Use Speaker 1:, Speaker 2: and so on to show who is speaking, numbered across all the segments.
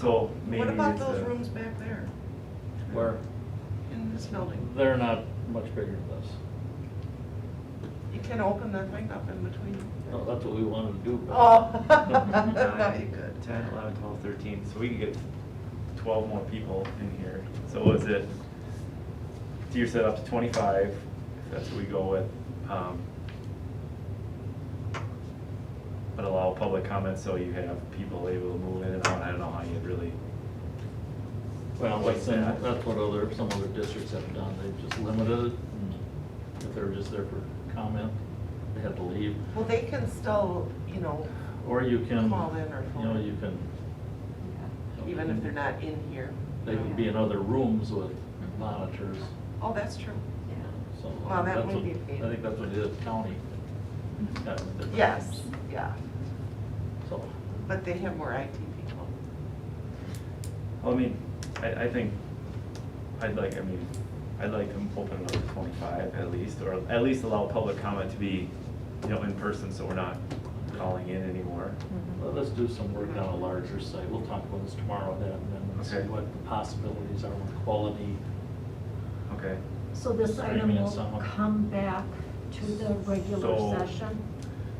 Speaker 1: So maybe
Speaker 2: What about
Speaker 1: it's uh,
Speaker 2: those
Speaker 1: a-
Speaker 2: rooms back there
Speaker 3: Where
Speaker 2: in this building?
Speaker 3: they're not much bigger than this.
Speaker 2: You can open that thing up in between.
Speaker 3: No, Oh, that's what we wanted to do. but-
Speaker 2: Oh,
Speaker 1: Nine,
Speaker 2: no, you could.
Speaker 1: 10, 11, 12, 13, so we could get 12 more people in here. So was it, so you're set up to 25, if that's what we go with. um, But allow public comment, so you have people able to move in and out, I don't know how you'd really,
Speaker 3: Well, like, some-
Speaker 1: Like that.
Speaker 3: that's what other, some other districts have done, they've just limited it, and if they were just there for comment, they had to leave.
Speaker 2: Well, they can still, you know,
Speaker 3: Or you can,
Speaker 2: Call in or
Speaker 3: you know,
Speaker 2: phone.
Speaker 3: you can,
Speaker 2: even if they're not in here.
Speaker 3: they can be in other rooms with monitors,
Speaker 2: Oh, that's true.
Speaker 3: so.
Speaker 2: Well, that
Speaker 3: that's
Speaker 2: would
Speaker 3: what-
Speaker 2: be Mm-hmm.
Speaker 3: I think that's what it is, county. got with the
Speaker 2: Yes,
Speaker 3: rooms,
Speaker 2: yeah,
Speaker 3: So,
Speaker 2: but they have more IT people.
Speaker 1: I mean, I, I think, I'd like, I mean, I'd like to open it up to 25 at least, or at least allow public comment to be, you know, in person, so we're not calling in anymore.
Speaker 2: Mm-hmm.
Speaker 3: well, let's do some work on a larger site, we'll talk about this tomorrow then, and then see
Speaker 1: Okay.
Speaker 3: what the possibilities are with quality.
Speaker 1: Okay.
Speaker 4: So this
Speaker 3: Sorry,
Speaker 4: item
Speaker 3: Mina,
Speaker 4: will
Speaker 3: someone-
Speaker 4: come back to the
Speaker 1: So-
Speaker 4: regular session?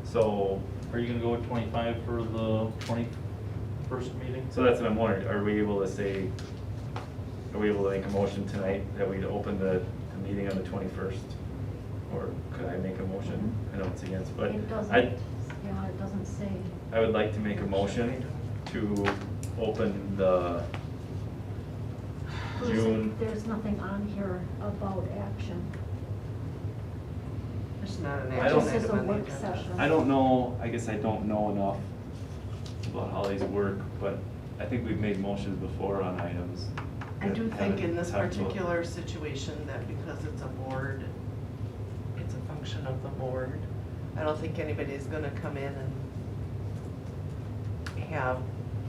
Speaker 1: So,
Speaker 3: Are you gonna go with twenty-five for the twenty-first meeting?
Speaker 1: so that's what I'm wondering, are we able to say, are we able to make a motion tonight that we'd open the, the meeting on the twenty-first? Or could I make a motion? I know it's against, but
Speaker 4: It doesn't,
Speaker 1: I,
Speaker 4: yeah, it doesn't say.
Speaker 1: I would like to make a motion to open the
Speaker 4: There's-
Speaker 1: June,
Speaker 4: There's nothing on here about action.
Speaker 2: It's not an
Speaker 1: I don't-
Speaker 2: action
Speaker 4: This is a
Speaker 2: item on the
Speaker 4: work
Speaker 2: agenda.
Speaker 4: session.
Speaker 1: I don't know, I guess I don't know enough about how these work, but I think we've made motions before on items.
Speaker 2: I do
Speaker 1: that
Speaker 2: think in
Speaker 1: haven't
Speaker 2: this
Speaker 1: talked about.
Speaker 2: particular situation that because it's a board, it's a function of the board, I don't think anybody's gonna come in and have,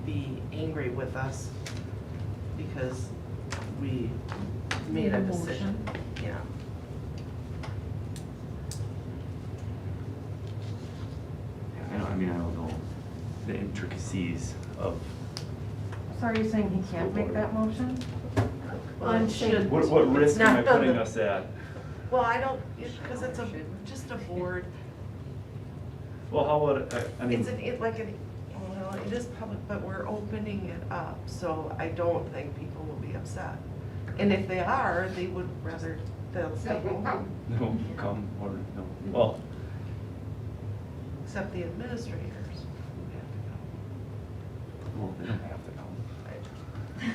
Speaker 2: be angry with us because we made a
Speaker 4: Made a
Speaker 2: decision. Yeah.
Speaker 1: I don't, I mean, I don't know the intricacies of.
Speaker 5: So are you saying he can't make that motion?
Speaker 2: Well, it
Speaker 4: I'm saying-
Speaker 2: should-
Speaker 1: What, what
Speaker 2: it's
Speaker 1: risk am I
Speaker 2: not on
Speaker 1: putting
Speaker 2: the-
Speaker 1: us at?
Speaker 2: Well, I don't, because it's a, just a board,
Speaker 1: Well, how would, I- I mean,
Speaker 2: It's an, e- it like an, well, it is public, but we're opening it up, so I don't think people will be upset. And if they are, they would rather, they'll stay home,
Speaker 1: no, come, or, no, well,
Speaker 2: except the administrators. who
Speaker 1: well, they don't have to come.
Speaker 2: have to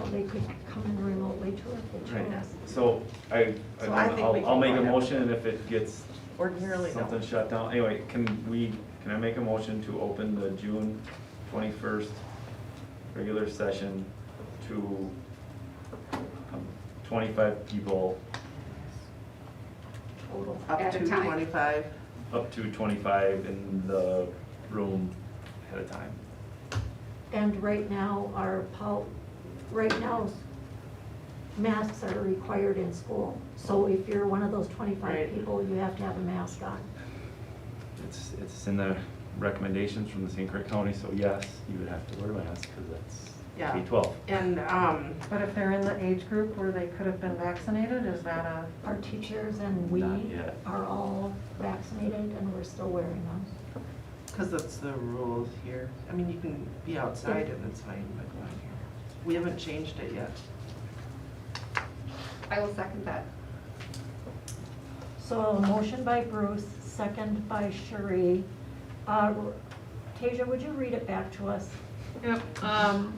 Speaker 4: Well, they could come in remotely too if they
Speaker 1: Right,
Speaker 4: chose.
Speaker 1: so I, I
Speaker 2: So I
Speaker 1: don't
Speaker 2: think we
Speaker 1: know, I'll,
Speaker 2: can
Speaker 1: I'll make a
Speaker 2: find out.
Speaker 1: motion and if it gets
Speaker 2: go. Ordinarily, no.
Speaker 1: something shut down, anyway, can we, can I make a motion to open the June twenty-first regular session to um, twenty-five people,
Speaker 4: Total.
Speaker 2: Up
Speaker 6: At a
Speaker 2: to
Speaker 6: time.
Speaker 2: twenty-five,
Speaker 1: up to twenty-five in the room at a time?
Speaker 4: And right now, our, pol- right now, masks are required in school. So if you're one of those
Speaker 2: Right.
Speaker 4: twenty-five people, you have to have a mask on.
Speaker 1: It's, it's in the recommendations from the St. Clair County, so yes, you would have to wear a mask, cause that's
Speaker 2: Yeah.
Speaker 1: K twelve.
Speaker 2: and, um,
Speaker 5: But if they're in the age group where they could have been vaccinated, is that a,
Speaker 4: Our teachers and we
Speaker 1: Not yet.
Speaker 4: are all vaccinated and we're still wearing them.
Speaker 2: because that's the rules here. I mean, you can be outside and it's fine, but not here. We haven't changed it yet.
Speaker 6: I will second that.
Speaker 4: So a motion by Bruce, second by Cherie. Uh, Tasia, would you read it back to us?
Speaker 7: Yep, um,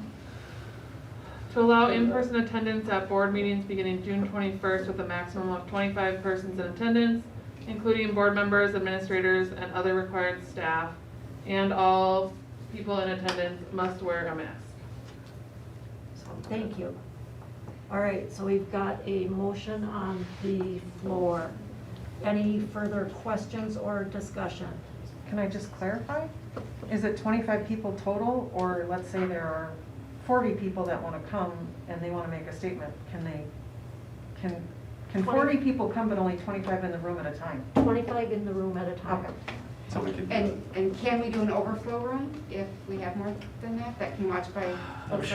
Speaker 7: to allow in-person attendance at board meetings beginning June twenty-first with a maximum of twenty-five persons in attendance, including board members, administrators, and other required staff, and all people in attendance must wear a mask.
Speaker 2: So-
Speaker 4: Thank you. All right, so we've got a motion on the floor. Any further questions or discussion?
Speaker 5: can I just clarify? Is it twenty-five people total, or let's say there are forty people that wanna come and they wanna make a statement, can they, can, can
Speaker 4: Twenty.
Speaker 5: forty people come but only twenty-five in the room at a time?
Speaker 4: Twenty-five in the room at a time.
Speaker 1: so we could do it.
Speaker 6: And, and can we do an overflow room if we have more than that, that can watch by?
Speaker 1: I'm